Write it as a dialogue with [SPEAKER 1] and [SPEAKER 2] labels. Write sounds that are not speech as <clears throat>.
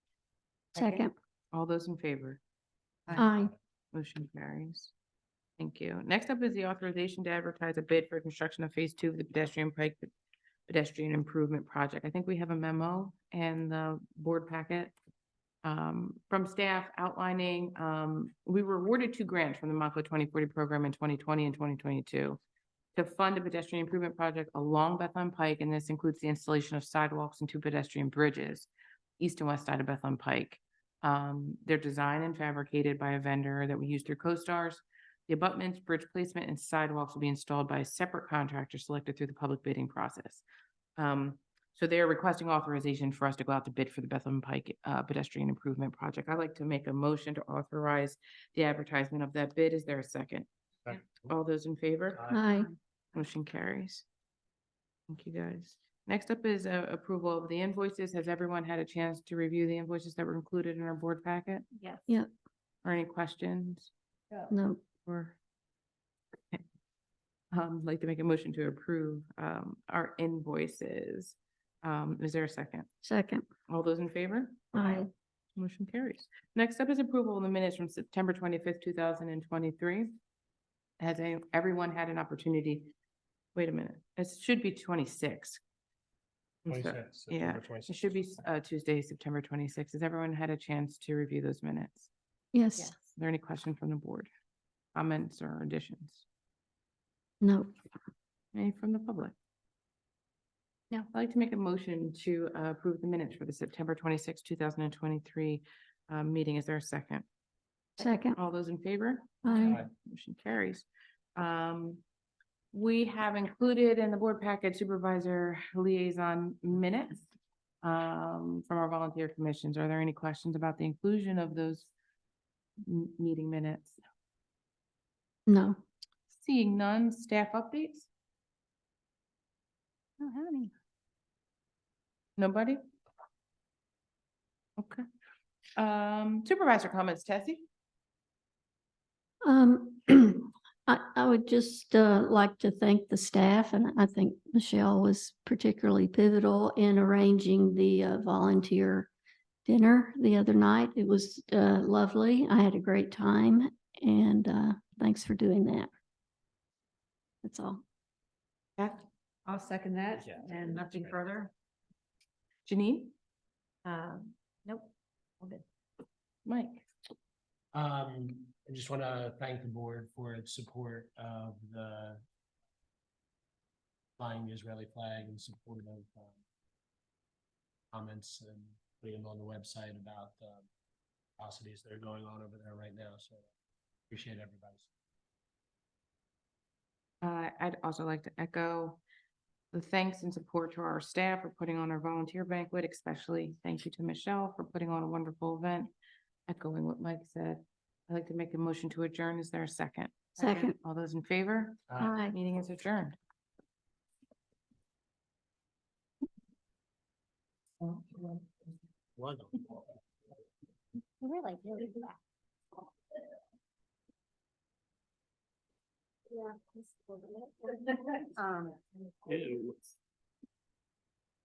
[SPEAKER 1] Second.
[SPEAKER 2] All those in favor?
[SPEAKER 1] Aye.
[SPEAKER 2] Motion carries. Thank you. Next up is the authorization to advertise a bid for construction of phase two of the pedestrian pike pedestrian improvement project. I think we have a memo in the board packet um, from staff outlining, um, we were awarded two grants from the Monco twenty forty program in twenty twenty and twenty twenty-two to fund a pedestrian improvement project along Bethlehem Pike, and this includes the installation of sidewalks and two pedestrian bridges east and west side of Bethlehem Pike. Um, they're designed and fabricated by a vendor that we use through CoStars. The abutments, bridge placement, and sidewalks will be installed by a separate contractor selected through the public bidding process. Um, so they're requesting authorization for us to go out to bid for the Bethlehem Pike uh, pedestrian improvement project. I'd like to make a motion to authorize the advertisement of that bid. Is there a second?
[SPEAKER 3] Second.
[SPEAKER 2] All those in favor?
[SPEAKER 3] Uh,
[SPEAKER 1] Aye.
[SPEAKER 2] Motion carries. Thank you, guys. Next up is uh, approval of the invoices. Has everyone had a chance to review the invoices that were included in our board packet?
[SPEAKER 4] Yes.
[SPEAKER 1] Yep.
[SPEAKER 2] Or any questions
[SPEAKER 1] No.
[SPEAKER 2] or? Okay. Um, I'd like to make a motion to approve um, our invoices. Um, Is there a second?
[SPEAKER 1] Second.
[SPEAKER 2] All those in favor?
[SPEAKER 1] Aye.
[SPEAKER 2] Motion carries. Next up is approval of the minutes from September twenty-fifth, two thousand and twenty-three. Has any- everyone had an opportunity? Wait a minute, it should be twenty-six.
[SPEAKER 3] Twenty-six.
[SPEAKER 2] yeah,
[SPEAKER 3] September
[SPEAKER 2] It
[SPEAKER 3] 26th.
[SPEAKER 2] should be uh, Tuesday, September twenty-sixth. Has everyone had a chance to review those minutes?
[SPEAKER 1] Yes.
[SPEAKER 2] Are there any questions from the board? Comments or additions?
[SPEAKER 1] No.
[SPEAKER 2] Any from the public?
[SPEAKER 4] No.
[SPEAKER 2] I'd like to make a motion to uh, approve the minutes for the September twenty-sixth, two thousand and twenty-three uh, meeting. Is there a second?
[SPEAKER 1] Second.
[SPEAKER 2] All those in favor?
[SPEAKER 1] Aye.
[SPEAKER 3] Aye.
[SPEAKER 2] Motion carries. Um, we have included in the board packet supervisor liaison minutes um, from our volunteer commissions. Are there any questions about the inclusion of those m- meeting minutes?
[SPEAKER 1] No.
[SPEAKER 2] Seeing none, staff updates?
[SPEAKER 4] Don't have any.
[SPEAKER 2] Nobody? Okay. Um, supervisor comments, Tessie?
[SPEAKER 1] Um, <clears throat> I, I would just, uh, like to thank the staff and I think Michelle was particularly pivotal in arranging the uh, volunteer dinner the other night. It was, uh, lovely. I had a great time and, uh, thanks for doing that. That's all.
[SPEAKER 2] Beth?
[SPEAKER 4] I'll second that
[SPEAKER 3] Yeah.
[SPEAKER 4] and nothing further.
[SPEAKER 2] Janine?
[SPEAKER 4] Um, nope. All good.
[SPEAKER 2] Mike?
[SPEAKER 3] Um, I just want to thank the board for its support of the flying the Israeli flag and support of um, comments and putting them on the website about the atrocities that are going on over there right now. So appreciate everybody's.
[SPEAKER 2] Uh, I'd also like to echo the thanks and support to our staff for putting on our volunteer banquet, especially thank you to Michelle for putting on a wonderful event. Echoing what Mike said, I'd like to make a motion to adjourn. Is there a second?
[SPEAKER 1] Second.
[SPEAKER 2] All those in favor?
[SPEAKER 3] Uh,
[SPEAKER 1] Aye.
[SPEAKER 2] Meeting is adjourned.
[SPEAKER 3] Wonderful.
[SPEAKER 4] We're like really black. Yeah. Um.
[SPEAKER 3] Ew.